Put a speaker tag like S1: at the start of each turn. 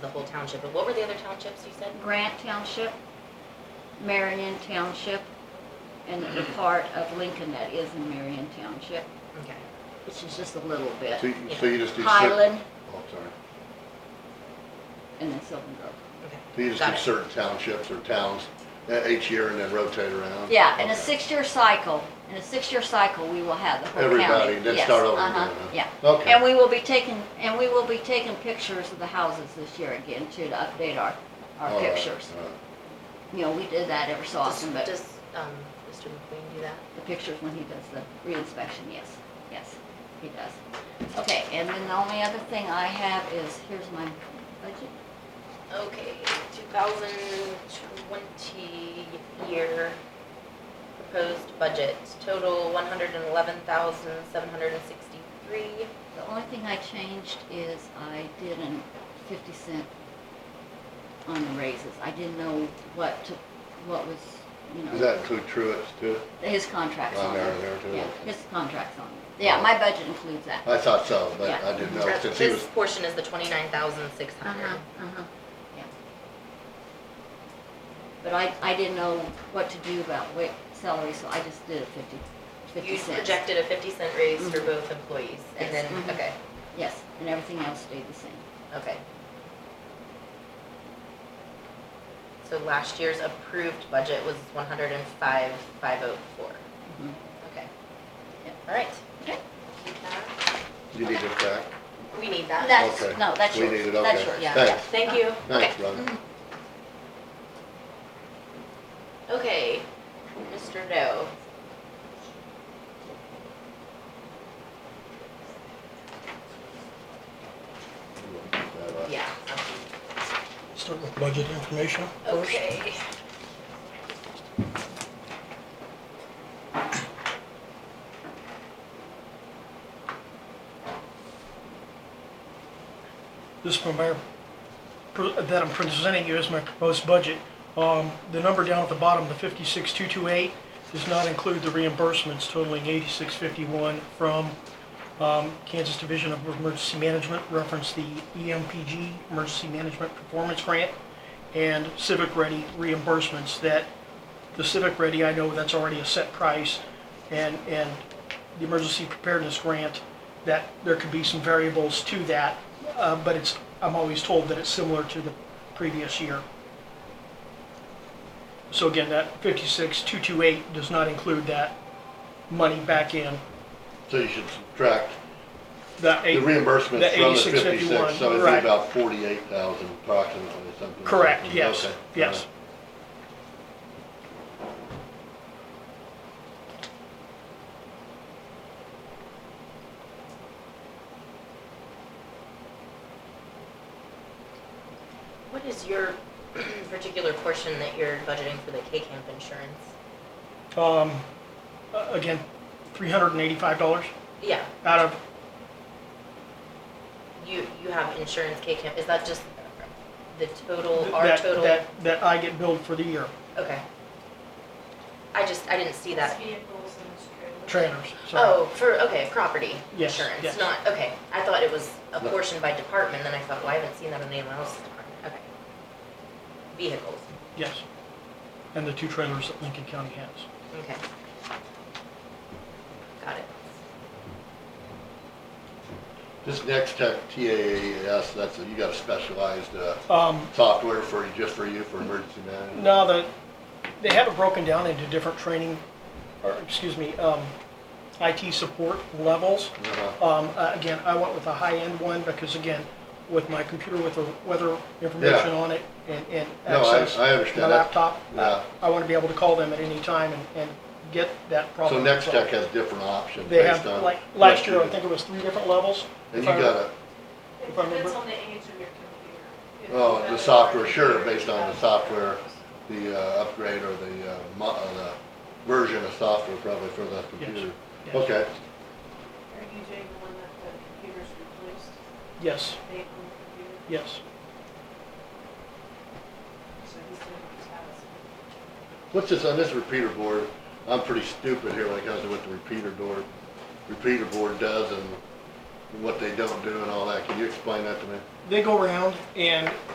S1: the whole township, but what were the other townships you said?
S2: Grant Township, Marion Township, and the
S3: Mm-hmm.
S2: part of Lincoln that is in Marion Township,
S1: Okay.
S2: which is just a little
S3: So
S2: bit.
S3: you, so you just did certain,
S2: Highland
S3: oh, I'm sorry.
S2: and then Sylvan Grove.
S1: Okay.
S3: So you just
S1: Got
S3: did
S1: it.
S3: certain townships or towns uh, each year and then rotate around?
S2: Yeah, in a
S3: Okay.
S2: six-year cycle, in a six-year cycle, we will have the whole county.
S3: Everybody, then
S2: Yes,
S3: start over
S2: uh-huh,
S3: again, huh?
S2: Yeah.
S3: Okay.
S2: And we will be taking, and we will be taking pictures of the houses this year again too, to update our,
S3: All
S2: our
S3: right,
S2: pictures.
S3: all right.
S2: You know, we did that ever so often, but
S1: Does, um, Mr. McQueen do that?
S2: the pictures when he does the re-inspection, yes, yes, he does. Okay, and then the only other thing I have is, here's my budget.
S1: Okay, 2020 year proposed budget, total 111,763.
S2: The only thing I changed is I did a fifty cent on the raises. I didn't know what to, what was, you know.
S3: Does that include truants too?
S2: His contract's
S3: Oh,
S2: on
S3: there,
S2: there.
S3: there, too,
S2: Yeah,
S3: okay.
S2: his contract's on there. Yeah, my budget includes that.
S3: I thought so, but
S2: Yeah.
S3: I didn't know
S1: That-
S3: since he
S1: This
S3: uh, was,
S1: portion is the 29,600.
S2: uh-huh, yeah. But I, I didn't know what to do about wait, salary, so I just did a fifty, fifty
S1: You
S2: cents.
S1: projected a 50 cent raise for
S2: Mhm.
S1: both employees, and then,
S2: Yes, mhm.
S1: okay,
S2: Yes, and everything else stayed the same.
S1: okay. So last year's approved budget was 105,504.
S2: Mhm.
S1: Okay.
S2: Yep.
S1: All right.
S2: Okay.
S1: Keep that.
S3: you need it back?
S1: We need that.
S2: That's,
S3: Okay.
S2: no, that's
S3: We
S2: yours.
S3: need it,
S2: That's
S3: okay.
S2: yours.
S1: Yeah.
S3: Thanks.
S1: Thank you.
S3: Thanks, brother.
S1: Mm-hmm. Okay, Mr. Doe. Yeah.
S4: Start with budget information.
S1: Okay.
S4: This is my, that I'm presenting you is my proposed budget. Um, The number down at the bottom, the 56,228, does not include the reimbursements totaling 8651 from um, Kansas Division of Emergency Management, reference the E EMPG, Emergency Management Performance Grant, and Civic Ready reimbursements that, the Civic Ready, I know that's already a set price, and, and the Emergency Preparedness Grant, that there could be some variables to that, uh, but it's, I'm always told that it's similar to the previous year. So again, that 56,228 does not include that money back in,
S3: So you should subtract
S4: that
S3: the
S4: eight.
S3: reimbursement
S4: the
S3: from the
S4: 86.51,
S3: fifty-six, so it'd be
S4: right.
S3: about forty-eight thousand approximately, something. like
S4: Correct,
S3: that.
S4: yes,
S3: Okay, all
S4: yes.
S1: What is your particular portion that you're budgeting for the K-Camp insurance?
S4: Um, uh, again, $385
S1: Yeah,
S4: out of,
S1: you, you have insurance K-Camp, is that just the total, our
S4: that,
S1: total?
S4: that, that I get billed for the year,
S1: Okay. I just, I didn't see that.
S5: Vehicles and trailers.
S4: trailers, so.
S1: Oh, for, okay, property
S4: Yes,
S1: insurance,
S4: yes.
S1: not, okay. I thought it was a
S3: No.
S1: portion by department, then I thought, well, I haven't seen that in anyone else's department, okay. Vehicles,
S4: Yes. And the two trailers that Lincoln County has.
S1: okay. Got it.
S3: This next tech, TAAS, that's, a- you got a specialized, uh,
S4: Um,
S3: software for, just for you, for emergency management?
S4: Now that, they have it broken down into different training, or, excuse me, um, IT support levels.
S3: Uh-huh.
S4: Um, uh, again, I went with a high-end one because again, with my computer with the weather information
S3: Yeah.
S4: on it and, and
S3: No, I-
S4: access.
S3: I understand
S4: My
S3: that.
S4: laptop,
S3: Yeah.
S4: I, I wanna be able to call them at any time and, and get that
S3: So
S4: problem.
S3: Next Tech
S4: solved.
S3: has different options
S4: They have,
S3: based on.
S4: like,
S3: what
S4: last year,
S3: you
S4: I
S3: do.
S4: think it was three different levels.
S3: And
S4: if
S3: you
S4: I remember-
S3: got a,
S5: It
S4: If I remember-
S5: depends on the age of your computer. If
S3: oh,
S5: you
S3: the
S5: have
S3: software,
S5: a-
S3: sure, based on the software, the uh, upgrade or the, uh, mo- uh, the version of software probably for that computer.
S4: yes.
S3: Okay,
S5: Are you doing the one that the computer's replaced,
S4: Yes,
S5: they own the computer,
S4: yes.
S5: so he's doing his house?
S3: what's this, on this repeater board, I'm pretty stupid here when it comes to what the repeater board, repeater board does and what they don't do and all that, can you explain that to me?
S4: They go around and